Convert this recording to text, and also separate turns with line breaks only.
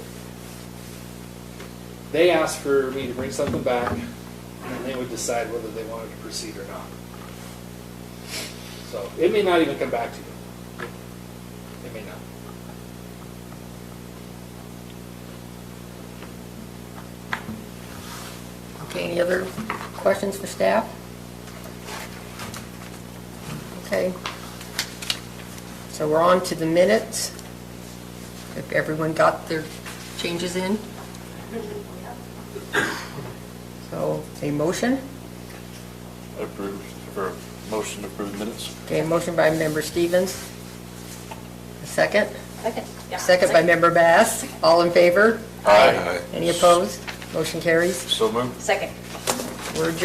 They asked for me to bring something back, and then they would decide whether they wanted to proceed or not. So it may not even come back to you. It may not.
Okay, any other questions for staff? Okay. So we're on to the minutes. If everyone got their changes in? So, a motion?
Approved, or motion to approve minutes?
Okay, a motion by member Stevens. A second?
Second.
Second by member Bass. All in favor?
Aye.
Any opposed? Motion carries.
So moved.
Second.
We're adjourned.